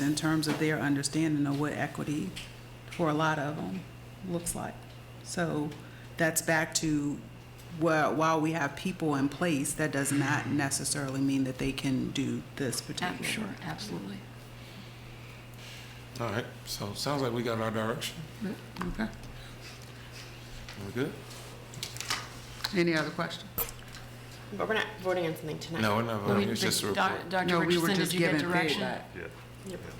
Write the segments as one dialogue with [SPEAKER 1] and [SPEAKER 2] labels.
[SPEAKER 1] in terms of their understanding of what equity, for a lot of them, looks like. So that's back to, well, while we have people in place, that does not necessarily mean that they can do this
[SPEAKER 2] Ab-
[SPEAKER 1] particular.
[SPEAKER 2] Sure, absolutely.
[SPEAKER 3] All right, so sounds like we got our direction.
[SPEAKER 2] Okay.
[SPEAKER 3] We're good?
[SPEAKER 2] Any other questions?
[SPEAKER 4] But we're not voting on something tonight.
[SPEAKER 3] No, we're not voting, it's just a report.
[SPEAKER 2] Dr. Richardson, did you get direction?
[SPEAKER 3] Yep.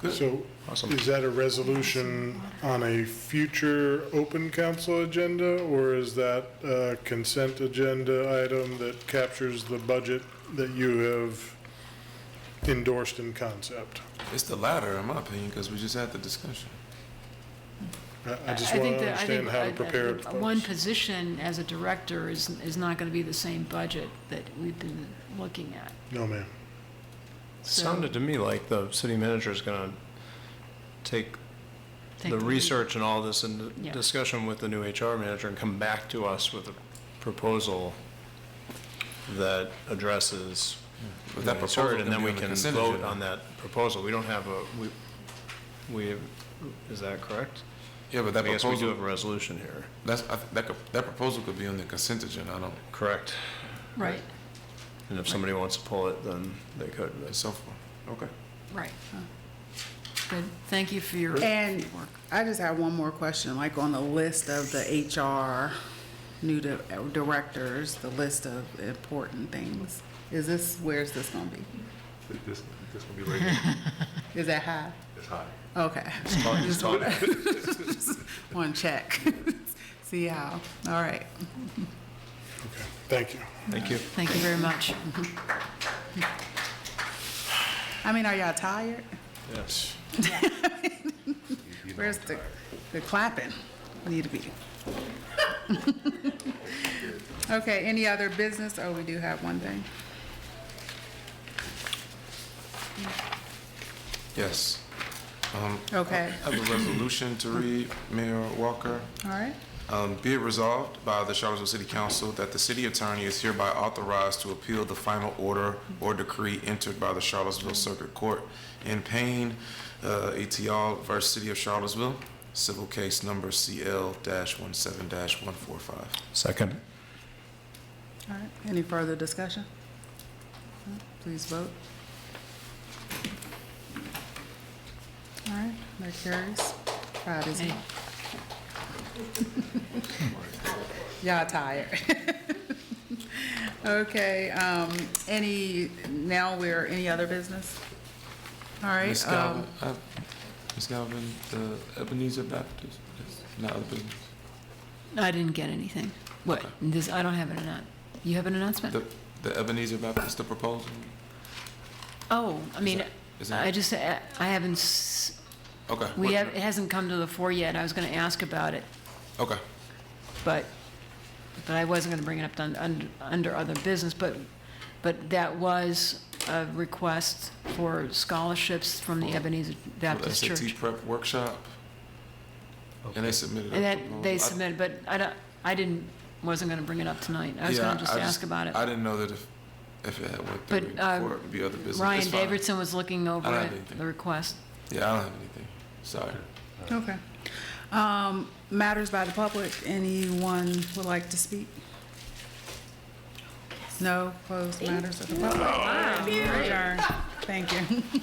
[SPEAKER 3] Good.
[SPEAKER 5] So
[SPEAKER 3] Awesome.
[SPEAKER 5] is that a resolution on a future open council agenda, or is that a consent agenda item that captures the budget that you have endorsed in concept?
[SPEAKER 3] It's the latter, in my opinion, because we just had the discussion.
[SPEAKER 5] I- I just
[SPEAKER 2] think
[SPEAKER 5] want to
[SPEAKER 2] that- I
[SPEAKER 5] understand
[SPEAKER 2] think
[SPEAKER 5] how to
[SPEAKER 2] I- I-
[SPEAKER 5] prepare it.
[SPEAKER 2] One position as a director is, is not going to be the same budget that we've been looking at.
[SPEAKER 5] No, ma'am.
[SPEAKER 2] So-
[SPEAKER 6] Sounded to me like the city manager is going to take
[SPEAKER 2] Take the
[SPEAKER 6] the
[SPEAKER 2] lead.
[SPEAKER 6] research and all this and
[SPEAKER 2] Yeah.
[SPEAKER 6] the discussion with the new HR manager and come back to us with a proposal that addresses
[SPEAKER 3] But that
[SPEAKER 6] what he's
[SPEAKER 3] proposal
[SPEAKER 6] heard,
[SPEAKER 3] can
[SPEAKER 6] and then
[SPEAKER 3] be
[SPEAKER 6] we
[SPEAKER 3] on the
[SPEAKER 6] can
[SPEAKER 3] consent
[SPEAKER 6] vote
[SPEAKER 3] agenda.
[SPEAKER 6] on that proposal. We don't have a, we, we, is that correct?
[SPEAKER 3] Yeah, but
[SPEAKER 6] I
[SPEAKER 3] that
[SPEAKER 6] guess we do
[SPEAKER 3] proposal,
[SPEAKER 6] have a resolution here.
[SPEAKER 3] that's, I th- that could, that proposal could be on the consent agenda, I don't,
[SPEAKER 6] Correct.
[SPEAKER 2] Right,
[SPEAKER 6] And if somebody wants to pull it, then they could.
[SPEAKER 3] and so forth. Okay.
[SPEAKER 2] right. Good, thank you for your for
[SPEAKER 1] And-
[SPEAKER 2] your work.
[SPEAKER 1] I just have one more question, like on the list of the HR new di- directors, the list of important things. Is this, where's this gonna be?
[SPEAKER 7] This, this will be rated
[SPEAKER 1] Is that high?
[SPEAKER 7] as high.
[SPEAKER 1] Okay. Just wanna- just Wanna check. See how, all right.
[SPEAKER 5] Okay, thank you.
[SPEAKER 6] Thank you.
[SPEAKER 2] Thank you very much.
[SPEAKER 1] I mean, are y'all tired?
[SPEAKER 6] Yes.
[SPEAKER 1] Where's the, the clapping? Need to be. Okay, any other business? Oh, we do have one thing.
[SPEAKER 3] Yes. Um,
[SPEAKER 1] Okay,
[SPEAKER 3] I have a resolution to read, Mayor Walker.
[SPEAKER 1] all right.
[SPEAKER 3] Um, Be it resolved by the Charlottesville City Council that the city attorney is hereby authorized to appeal the final order or decree entered by the Charlottesville Circuit Court in Payne, uh, ETL versus City of Charlottesville, civil case number CL-17-145.
[SPEAKER 6] Second.
[SPEAKER 1] All right, any further discussion? Please vote. All right, that carries. Five is
[SPEAKER 2] Hey.
[SPEAKER 1] Y'all tired. Okay, um, any, now we're, any other business? All right.
[SPEAKER 3] Ms.
[SPEAKER 1] um,
[SPEAKER 3] Galvin, uh, Ms. Galvin, the Ebenezer Baptist, is not Ebenezer,
[SPEAKER 2] I didn't get anything. What, this, I don't have an announcement. You have an announcement?
[SPEAKER 3] the- the Ebenezer Baptist, the proposal?
[SPEAKER 2] Oh, I mean,
[SPEAKER 3] is that-
[SPEAKER 2] I just, I I haven't, s-
[SPEAKER 3] Okay.
[SPEAKER 2] we
[SPEAKER 3] what-
[SPEAKER 2] have, it hasn't come to the fore yet. I was going to ask about it,
[SPEAKER 3] Okay.
[SPEAKER 2] but, but I wasn't going to bring it up under- under, under other business, but, but that was a request for scholarships from the Ebenezer Baptist
[SPEAKER 3] SAT
[SPEAKER 2] Church.
[SPEAKER 3] prep workshop. And they submitted. a
[SPEAKER 2] And that,
[SPEAKER 3] proposal.
[SPEAKER 2] they
[SPEAKER 3] I-
[SPEAKER 2] submitted, but I don't, I didn't, wasn't going to bring it up tonight. I was
[SPEAKER 3] Yeah,
[SPEAKER 2] going to just
[SPEAKER 3] I
[SPEAKER 2] ask about it.
[SPEAKER 3] I didn't know that if, if it had went
[SPEAKER 2] But,
[SPEAKER 3] through
[SPEAKER 2] uh,
[SPEAKER 3] before, it would be other business.
[SPEAKER 2] Ryan
[SPEAKER 3] It's fine.
[SPEAKER 2] Davidson was looking
[SPEAKER 3] I
[SPEAKER 2] over
[SPEAKER 3] don't have
[SPEAKER 2] it,
[SPEAKER 3] anything.
[SPEAKER 2] the request.
[SPEAKER 3] Yeah, I don't have anything. Sorry.
[SPEAKER 1] Okay. Um, Matters by the public, anyone would like to speak? No, closed matters of the public. Adjourned. Thank you.